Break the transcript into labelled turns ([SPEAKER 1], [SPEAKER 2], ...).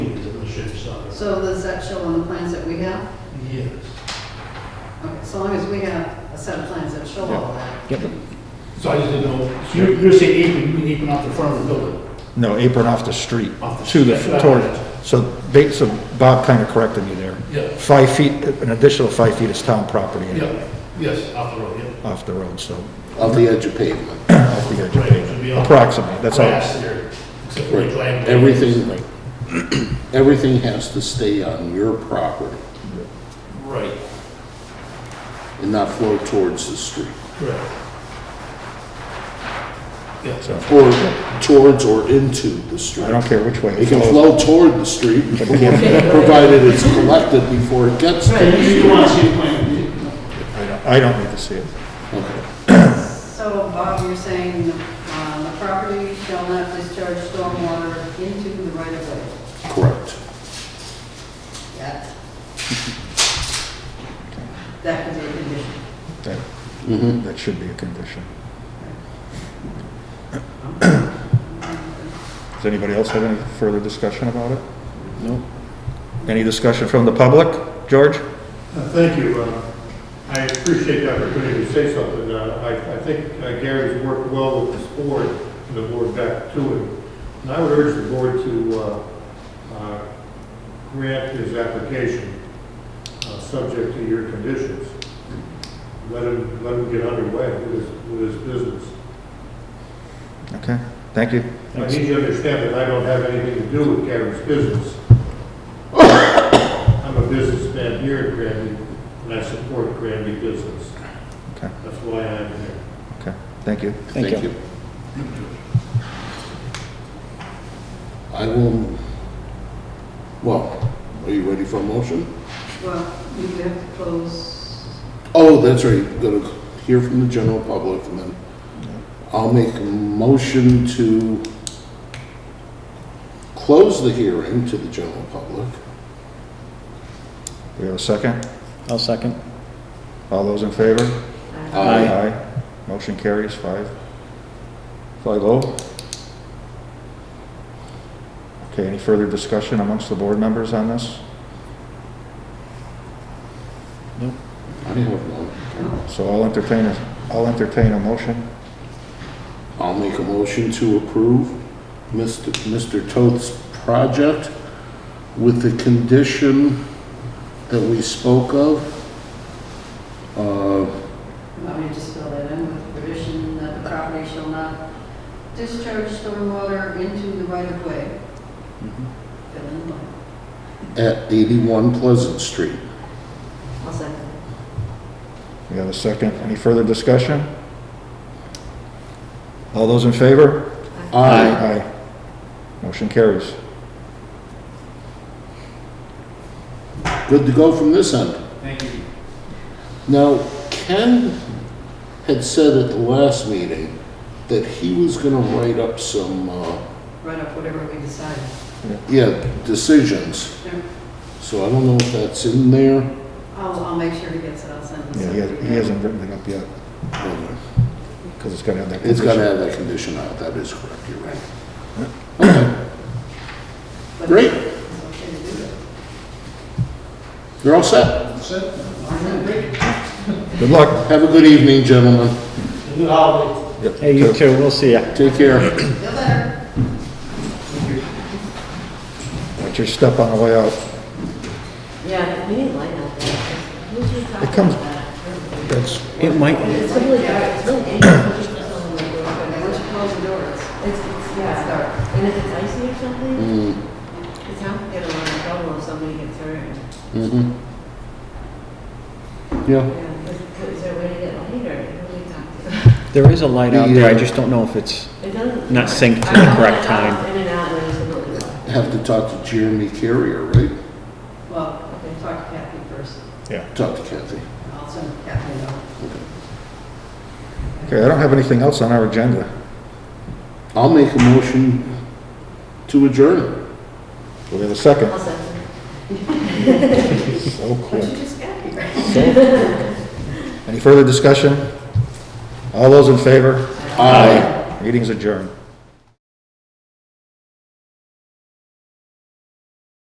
[SPEAKER 1] So does that show on the plans that we have?
[SPEAKER 2] Yes.
[SPEAKER 1] Okay, so long as we have a set of plans that show all that.
[SPEAKER 3] Yep.
[SPEAKER 2] So I just didn't know, so you're, you're saying apron, you mean apron off the front of the building?
[SPEAKER 3] No, apron off the street.
[SPEAKER 2] Off the
[SPEAKER 3] To
[SPEAKER 2] street,
[SPEAKER 3] the,
[SPEAKER 2] yeah.
[SPEAKER 3] toward, so ba- so Bob kind of corrected me there.
[SPEAKER 2] Yeah.
[SPEAKER 3] Five feet, an additional five feet is town property
[SPEAKER 2] Yeah, yes, off the road, yeah.
[SPEAKER 3] off the road, so
[SPEAKER 4] Of the edge of pavement.
[SPEAKER 3] off the edge of
[SPEAKER 2] Right, it'll be
[SPEAKER 3] pavement.
[SPEAKER 2] all
[SPEAKER 3] Approximately, that's all.
[SPEAKER 2] Grass there, except for the land.
[SPEAKER 4] Everything, everything has to stay on your property
[SPEAKER 2] Right,
[SPEAKER 4] and not flow towards the street.
[SPEAKER 2] correct. Yeah,
[SPEAKER 3] So
[SPEAKER 4] Or towards or into the street.
[SPEAKER 3] I don't care which way.
[SPEAKER 4] It can flow toward the street, provided it's collected before it gets there.
[SPEAKER 2] You you want to see the plan?
[SPEAKER 3] I don't- I don't need to see it.
[SPEAKER 4] Okay.
[SPEAKER 1] So Bob, you're saying uh, the property shall not discharge stormwater into the right of way.
[SPEAKER 4] Correct.
[SPEAKER 1] That, that could be a condition.
[SPEAKER 3] That,
[SPEAKER 4] Mhm.
[SPEAKER 3] that should be a condition. Does anybody else have any further discussion about it?
[SPEAKER 4] No.
[SPEAKER 3] Any discussion from the public? George?
[SPEAKER 5] Uh, Thank you. Uh, I appreciate the opportunity to say something. Uh, I I think uh, Gary's worked well with this board and the board back to him. And I would urge the board to uh, uh, grant his application, uh, subject to your conditions. Let him, let him get underway with his, with his business.
[SPEAKER 3] Okay, thank you.
[SPEAKER 5] I need you to understand that I don't have anything to do with Gary's business. I'm a businessman here in Granby, and I support Granby business.
[SPEAKER 3] Okay,
[SPEAKER 5] That's why I'm here.
[SPEAKER 3] okay, thank you.
[SPEAKER 4] Thank you. I will, well, are you ready for a motion?
[SPEAKER 1] Well, you have to close,
[SPEAKER 4] Oh, that's right, gonna hear from the general public, and then I'll make a motion to close the hearing to the general public.
[SPEAKER 3] We have a second?
[SPEAKER 6] I'll second.
[SPEAKER 3] All those in favor?
[SPEAKER 4] Aye.
[SPEAKER 3] Motion carries five, five oh. Okay, any further discussion amongst the board members on this?
[SPEAKER 4] I have none.
[SPEAKER 3] So I'll entertain, a- I'll entertain a motion.
[SPEAKER 4] I'll make a motion to approve Mr. Mr. Toth's project with the condition that we spoke of. Uh,
[SPEAKER 1] you want me to just fill that in with the condition that the property shall not discharge stormwater into the right of way. Fill in the blank.
[SPEAKER 4] At 81 Pleasant Street.
[SPEAKER 1] I'll second.
[SPEAKER 3] We have a second. Any further discussion? All those in favor?
[SPEAKER 4] Aye.
[SPEAKER 3] Motion carries.
[SPEAKER 4] Good to go from this end.
[SPEAKER 2] Thank you.
[SPEAKER 4] Now, Ken had said at the last meeting that he was gonna write up some, uh,
[SPEAKER 1] Write up whatever we decide.
[SPEAKER 4] yeah, decisions.
[SPEAKER 1] There-
[SPEAKER 4] So I don't know if that's in there.
[SPEAKER 1] I'll, I'll make sure he gets it, I'll send him.
[SPEAKER 3] Yeah, he hasn't- he hasn't written it up yet, because it's got to have that.
[SPEAKER 4] It's
[SPEAKER 3] condition.
[SPEAKER 4] gotta have that condition out, that is correct, you're right.
[SPEAKER 1] But
[SPEAKER 4] Great.
[SPEAKER 1] It's okay to do it.
[SPEAKER 4] You're all set.
[SPEAKER 3] Good luck.
[SPEAKER 4] Have a good evening, gentlemen.
[SPEAKER 2] Good holiday.
[SPEAKER 3] Yep.
[SPEAKER 6] Hey, you too, we'll see ya.
[SPEAKER 4] Take care.
[SPEAKER 1] Feel better.
[SPEAKER 3] Watch your step on the way out.
[SPEAKER 7] Yeah, we need light out there.
[SPEAKER 3] It comes, that's,
[SPEAKER 6] It might,
[SPEAKER 7] It's really dark, it's really
[SPEAKER 1] But
[SPEAKER 7] dangerous.
[SPEAKER 1] once you close the door, it's,
[SPEAKER 7] It's, it's,
[SPEAKER 1] it's
[SPEAKER 7] yeah,
[SPEAKER 1] dark.
[SPEAKER 7] and if it's icy or something,
[SPEAKER 4] Mm,
[SPEAKER 7] it's how to get a lot of trouble if somebody gets hurt.
[SPEAKER 4] mhm. Yeah.
[SPEAKER 7] Yeah, is, is there a way to get light or who do we talk
[SPEAKER 6] there is a light out there, I
[SPEAKER 4] Yeah.
[SPEAKER 6] just don't know if it's,
[SPEAKER 7] to? It doesn't.
[SPEAKER 6] Not synced to
[SPEAKER 7] I
[SPEAKER 6] the
[SPEAKER 7] don't
[SPEAKER 6] correct
[SPEAKER 7] know.
[SPEAKER 6] time.
[SPEAKER 7] In and out, and then it's a little.
[SPEAKER 4] Have to talk to Jeremy Carrier, right?
[SPEAKER 1] Well, okay, talk to Kathy first.
[SPEAKER 4] Talk to Kathy.
[SPEAKER 1] I'll send Kathy a note.
[SPEAKER 3] okay, I don't have anything else on our agenda.
[SPEAKER 4] I'll make a motion to adjourn.
[SPEAKER 3] Do we have a second?
[SPEAKER 7] I'll second.
[SPEAKER 3] So
[SPEAKER 1] But
[SPEAKER 3] quick.
[SPEAKER 1] you just got here.
[SPEAKER 3] Any further discussion? All those in favor?
[SPEAKER 4] Aye.
[SPEAKER 3] Meeting's adjourned.